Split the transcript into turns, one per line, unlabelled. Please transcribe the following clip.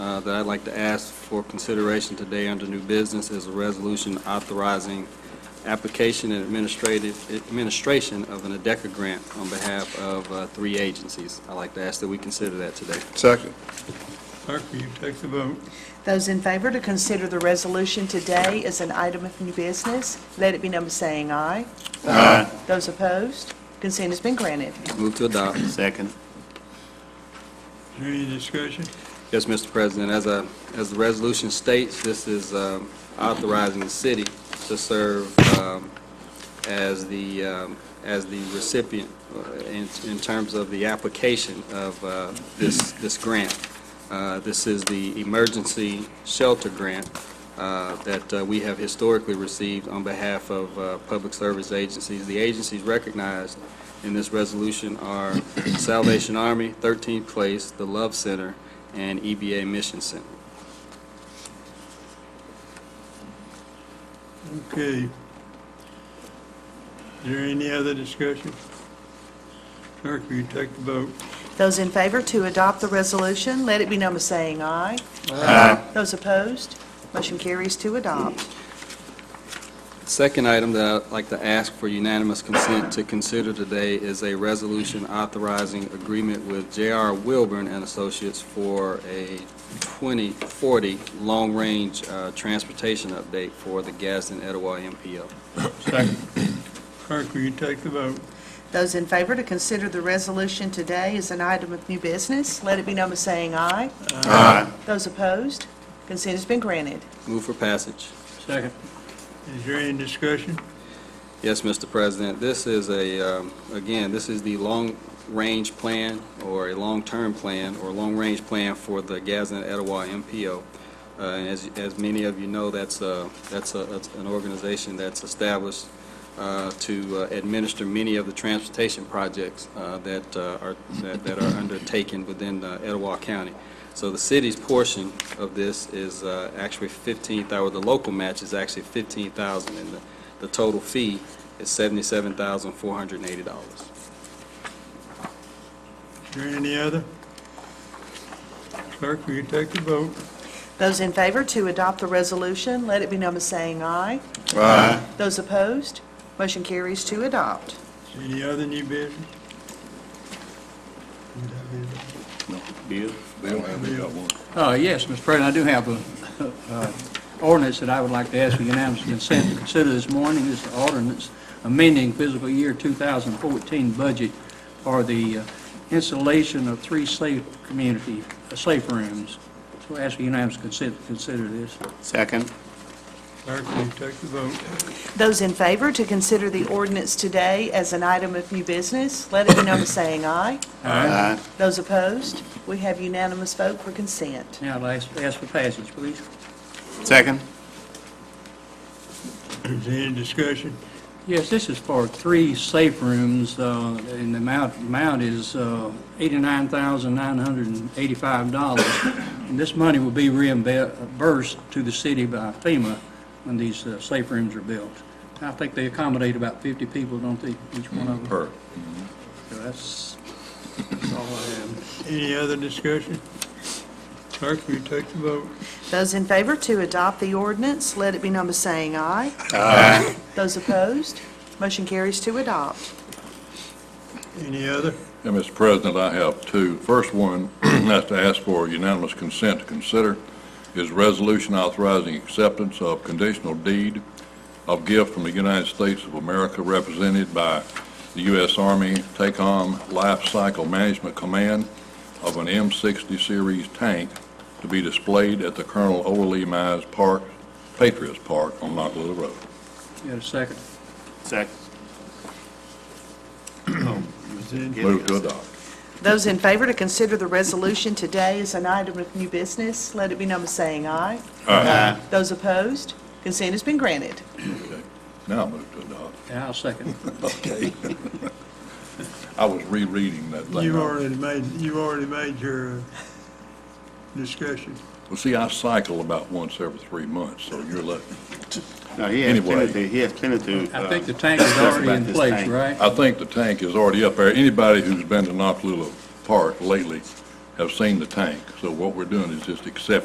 uh, that I'd like to ask for consideration today under new business is a resolution authorizing application and administrative, administration of an ADECA grant on behalf of uh, three agencies. I'd like to ask that we consider that today.
Second.
Clerk, will you take the vote?
Those in favor to consider the resolution today as an item of new business, let it be number saying aye. Aye. Those opposed, consent has been granted.
Move to adopt.
Second.
Is there any discussion?
Yes, Mr. President, as a, as the resolution states, this is um, authorizing the city to serve um, as the, um, as the recipient uh, in, in terms of the application of uh, this, this grant. Uh, This is the emergency shelter grant uh, that uh, we have historically received on behalf of uh, public service agencies. The agencies recognized in this resolution are Salvation Army, 13th Place, the Love Center, and EBA Mission Center.
Okay. Is there any other discussion? Clerk, will you take the vote?
Those in favor to adopt the resolution, let it be number saying aye. Aye. Those opposed, motion carries to adopt.
Second item that I'd like to ask for unanimous consent to consider today is a resolution authorizing agreement with J.R. Wilburn and Associates for a 2040 long-range uh, transportation update for the Gadsden Etowah MPO.
Clerk, will you take the vote?
Those in favor to consider the resolution today as an item of new business, let it be number saying aye. Aye. Those opposed, consent has been granted.
Move for passage.
Second.
Is there any discussion?
Yes, Mr. President, this is a, um, again, this is the long-range plan, or a long-term plan, or long-range plan for the Gadsden Etowah MPO. Uh, And as, as many of you know, that's, uh, that's a- that's an organization that's established uh, to uh, administer many of the transportation projects uh, that uh, are, that that are undertaken within uh, Etowah County. So the city's portion of this is uh, actually 15,000, or the local match is actually 15,000, and the the total fee is seventy-seven thousand, four hundred and eighty dollars.
Is there any other? Clerk, will you take the vote?
Those in favor to adopt the resolution, let it be number saying aye.
Aye.
Those opposed, motion carries to adopt.
Is there Any other new business?
Bill?
They don't have, they got one.
Uh, yes, Mr. President, I do have a, uh, ordinance that I would like to ask for unanimous consent to consider this morning. This is ordinance amending fiscal year 2014 budget for the uh, installation of three safe community, uh, safe rooms. So I ask for unanimous consent to consider this. Second.
Clerk, will you take the vote?
Those in favor to consider the ordinance today as an item of new business, let it be number saying aye.
Aye.
Those opposed, we have unanimous vote for consent.
Now, I'll ask ask for passage, please.
Second.
Is there any discussion?
Yes, this is for three safe rooms, uh, and the amount, amount is uh, $89,985. And this money will be reimbursed to the city by FEMA when these uh, safe rooms are built. I think they accommodate about 50 people, don't they, each one of them?
Per.
So That's that's all I have.
Any other discussion? Clerk, will you take the vote?
Those in favor to adopt the ordinance, let it be number saying aye.
Aye.
Those opposed, motion carries to adopt.
Any other?
And Mr. President, I have two. First one, that's to ask for unanimous consent to consider, is resolution authorizing acceptance of conditional deed of gift from the United States of America represented by the U.S. Army TACOM Life Cycle Management Command of an M60 series tank to be displayed at the Colonel Overly Mize Park, Patriots Park on Knoxville Road.
Got a second?
Second.
Is there any-
Move to adopt.
Those in favor to consider the resolution today as an item of new business, let it be number saying aye.
Aye.
Those opposed, consent has been granted.
Okay. Now move to adopt.
Yeah, I'll second.
Okay. I was rereading that thing.
You've already made, you've already made your uh, discussion.
Well, see, I cycle about once every three months, so you're lucky.
No, he has
Anyway.
plenty, to- he has plenty to.
I
uh,
think the tank is
discuss
already
about
in
this
place,
tank.
right?
I think the tank is already up there. Anybody who's been to Nakalula Park lately have seen the tank. So what we're doing is just accepting